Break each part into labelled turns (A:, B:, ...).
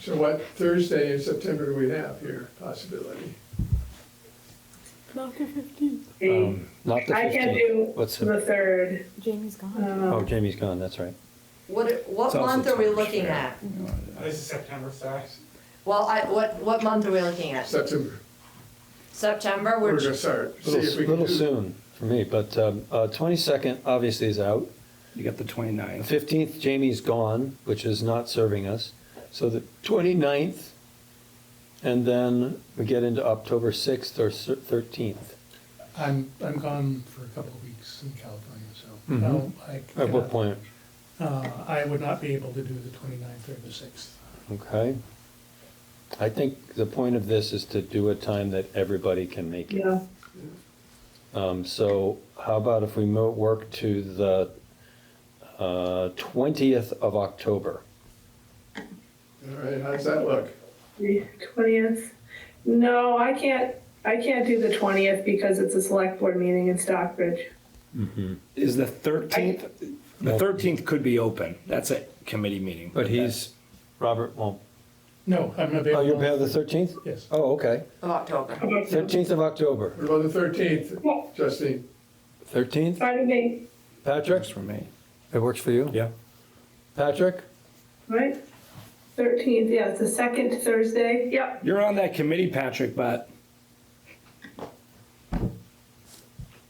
A: So what Thursday in September do we have here, possibility?
B: About the 15th.
C: Um, Not the
D: I can't
C: 15th.
D: do
C: What's
D: the
C: the,
D: third.
B: Jamie's gone.
D: Um,
C: oh, Jamie's gone, that's right.
E: What, what
C: It's also
E: month are we
C: September,
E: looking
C: yeah.
E: at?
F: This is September sixth.
E: Well, I, what, what month are we looking at?
A: September,
E: September,
A: we're
E: we're,
A: gonna start, see if
C: Little,
A: we can
C: little
A: do-
C: soon for me, but um, uh, 22nd obviously is out.
G: You got the 29th.
C: 15th, Jamie's gone, which is not serving us. So the 29th, and then we get into October 6th or cer- 13th.
H: I'm, I'm gone for a couple of weeks in California, so.
C: Mhm.
H: no, I
C: At
H: cannot-
C: what point?
H: Uh, I would not be able to do the 29th or the sixth.
C: Okay. I think the point of this is to do a time that everybody can make it.
D: yeah.
C: Um, so how about if we mo- work to the uh, twentieth of October?
A: All right, how's that look?
D: Twentieth? No, I can't, I can't do the twentieth because it's a select board meeting in Stockbridge.
G: Is the 13th, the 13th could be open. That's a committee meeting.
C: But he's, Robert won't.
H: No, I'm
C: Oh, you're
H: available,
C: about the thirteenth?
H: yes.
C: Oh, okay.
E: of
C: Oh,
E: October.
C: Thirteenth of October.
A: What about the thirteenth,
D: Yeah.
A: Justine?
C: Thirteenth?
D: Fine with me,
C: Patrick?
G: That's for me.
C: It works for you?
G: Yeah.
C: Patrick?
D: right? Thirteenth, yeah, it's the second Thursday, yep.
G: You're on that committee, Patrick, but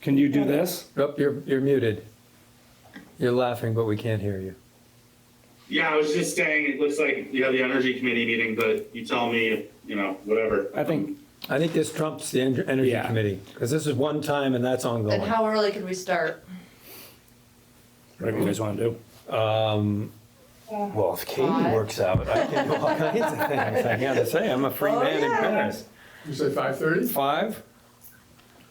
G: can you do this?
C: Yep, you're, you're muted. You're laughing, but we can't hear you.
I: Yeah, I was just saying, it looks like you have the energy committee meeting, but you tell me, you know, whatever.
G: I think,
C: I think this trumps the en- Energy
G: Yeah.
C: Committee, because this is one time and that's ongoing.
E: And how early can we start?
G: whatever you guys want to do.
C: Um, well, if Katie
E: Five.
C: works out, I can do all kinds of things. I gotta say, I'm a free
E: Oh,
C: man in
E: yeah.
C: Paris.
A: You say five thirty?
C: Five?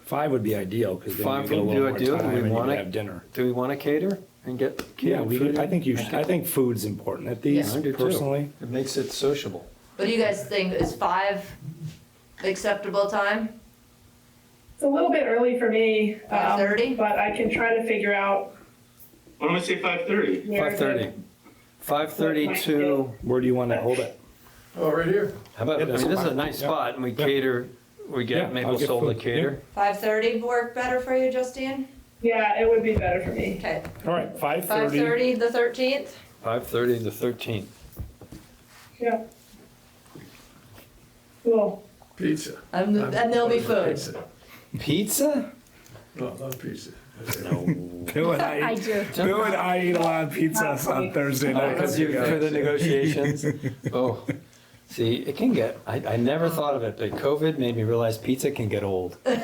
G: Five would be ideal because then
C: Five
G: you get a
C: would
G: little
C: do
G: more
C: ideal.
G: time
C: We
G: and you
C: wanna-
G: could have dinner.
C: Do we want to cater and get?
G: Yeah,
C: catered
G: we
C: food?
G: could, I think you should, I think food's important at
E: Yeah.
G: these
C: I do too.
G: personally.
C: It makes it sociable.
E: What do you guys think? Is five acceptable time?
D: It's a little bit early for me. um,
E: 5:30?
D: But I can try to figure out.
I: Why don't we say five thirty?
D: where
C: Five thirty.
D: the-
C: Five thirty to,
G: Where do you want to hold it?
A: Oh, right here?
C: how about, I
G: Yeah,
C: mean,
G: that's
C: this is a
G: fine.
C: nice
G: Yeah.
C: spot and we cater, we
G: Yeah,
C: get
G: I'll
C: Maple
G: get
C: Soul to
G: food.
C: cater.
E: Five thirty work better for you, Justine?
D: Yeah, it would be better for me.
E: Okay,
G: All right,
E: five
G: 5:30.
E: thirty, the thirteenth?
C: Five thirty to thirteen.
D: Yeah. Cool.
A: Pizza.
E: And,
A: I'm-
E: and there'll be food.
A: Pizza.
C: Pizza?
A: Oh, I love pizza.
G: Bill and
B: I
G: I,
B: do.
G: Bill and I eat a lot of pizzas on Thursday night.
C: Oh, Because you, for the negotiations. Oh, see, it can get, I, I never thought of it, but COVID made me realize pizza can get old. I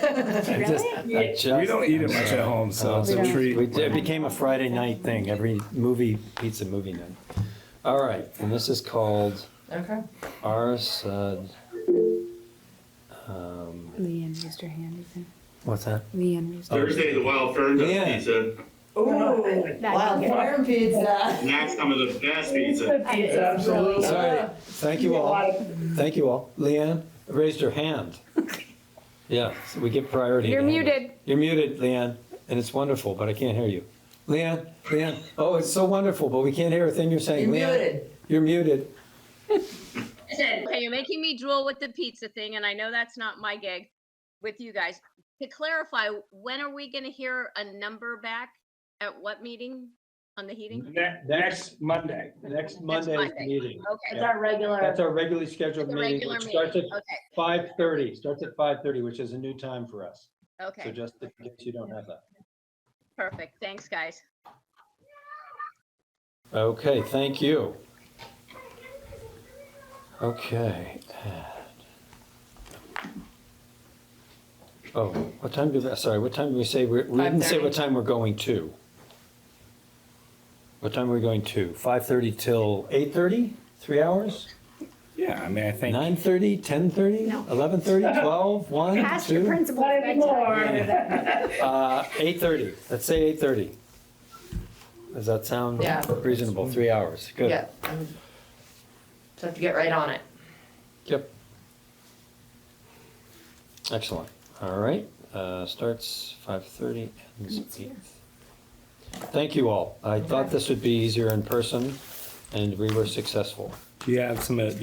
C: just- I
D: Yeah.
C: just- Oh,
G: We don't eat it much at home, so it's
B: We
G: a
B: don't.
C: We
G: treat.
C: did- It became a Friday night thing, every movie, pizza movie night. All right, and this is called
E: Okay.
C: RSUD. um,
B: Leanne raised her hand again.
C: What's that?
B: Leanne raised
G: Oh.
B: her
C: Oh,
I: Thursday, the Wild Fern does
C: Yeah.
I: pizza.
E: Ooh,
B: That can
E: wild
B: get-
E: fern pizza.
I: And that's some of the best pizza.
D: The pizza.
A: Absolutely.
C: All right, thank you all, thank you all. Leanne raised her hand. Yeah, so we give priority. to
B: You're
C: handles.
B: muted.
C: You're muted, Leanne, and it's wonderful, but I can't hear you. Leanne, Leanne, oh, it's so wonderful, but we can't hear a thing you're saying.
E: You're
C: Leanne,
E: muted.
C: You're muted.
J: Listen, uh, okay, you're making me drool with the pizza thing, and I know that's not my gig with you guys. To clarify, when are we gonna hear a number back? At what meeting on the heating?
G: Next Monday.
C: Next
J: Monday's
C: Monday's
J: Monday.
C: meeting.
J: Okay.
C: our
D: regular.
C: That's our regularly scheduled
J: The
C: meeting,
J: regular
C: which starts at
J: meeting, okay,
C: five thirty, starts at five thirty, which is a new time for us. So
J: okay,
C: just in case you don't have that.
J: perfect, thanks, guys.
C: Okay, thank you. Okay. and- Oh, what time do, sorry, what time do we say, we're- we didn't say what time we're going to? What time are we going to? Five thirty till eight thirty? Three hours?
G: Yeah, I mean, I think.
C: Nine thirty, ten thirty?
B: No.
C: Eleven thirty, twelve, one, two?
B: Ask your principal.
D: Not anymore.
C: Uh, eight thirty, let's say eight thirty. Does that sound
E: Yeah.
C: reasonable? Three hours, good.
E: Yeah. um, So have to get right on it.
C: Yep. Excellent, all right, uh, starts five thirty,
B: It's
C: ends
B: here.
C: eight. Thank you all, I thought this would be easier in person, and we were successful.
G: Do you have some, uh,